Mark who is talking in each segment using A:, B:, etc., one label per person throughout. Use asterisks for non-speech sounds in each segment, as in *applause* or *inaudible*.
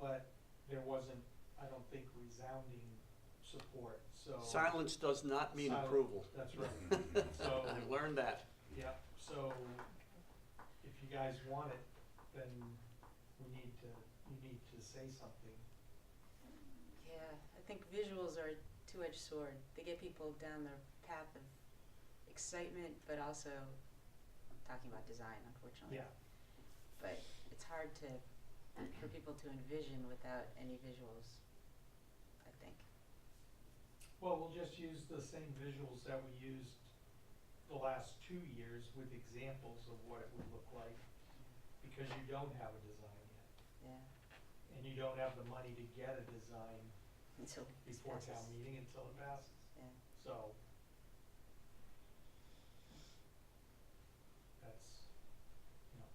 A: but there wasn't, I don't think, resounding support, so.
B: Silence does not mean
A: Sil-
B: approval.
A: That's right,
B: *laughs*
A: so,
B: I learned that.
A: yeah, so if you guys want it, then we need to, you need to say something.
C: Yeah, I think visuals are a two-edged sword. They get people down the path of excitement, but also talking about design, unfortunately.
A: Yeah,
C: But it's hard to
B: *clears throat*
C: for people to envision without any visuals. I think.
A: well, we'll just use the same visuals that we used the last two years with examples of what it would look like, because you don't have a design yet,
C: Yeah.
A: and you don't have the money to get a design
C: Until this
A: before town
C: passes.
A: meeting until it passes.
C: Yeah.
A: So. That's, you know.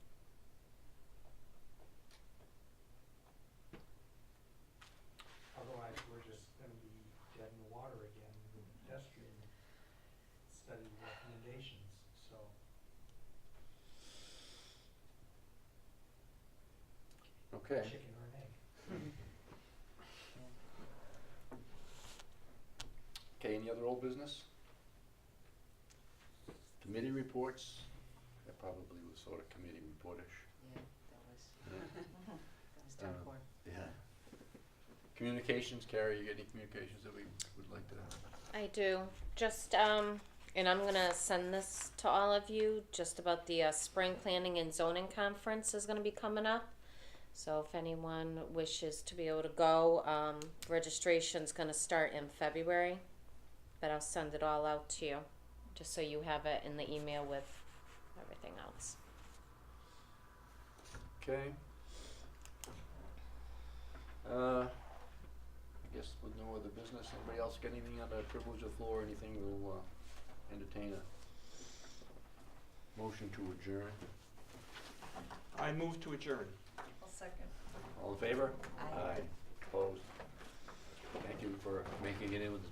A: Otherwise, we're just gonna be dead in the water again with pedestrian study recommendations, so.
B: Okay.
A: Chicken or an egg.
C: Yeah.
B: Okay, any other old business? Committee reports? That probably was sort of committee reportish.
C: Yeah. That was.
B: Yeah.
C: *laughs* that was done
B: Uh,
C: for.
B: Yeah. Communications, Carrie, you got any communications that we would like to have?
D: I do. Just, um, and I'm gonna send this to all of you, just about the, uh, spring planning and zoning conference is gonna be coming up. So if anyone wishes to be able to go, um, registration's gonna start in February. But I'll send it all out to you, just so you have it in the email with everything else.
B: Okay. Uh, I guess with no other business, anybody else got anything on the privilege of floor, anything we'll, uh, entertain a motion to adjourn?
E: I move to adjourn.
B: All in favor?
C: Aye.
B: uh, Opposed? Thank you for making it in with the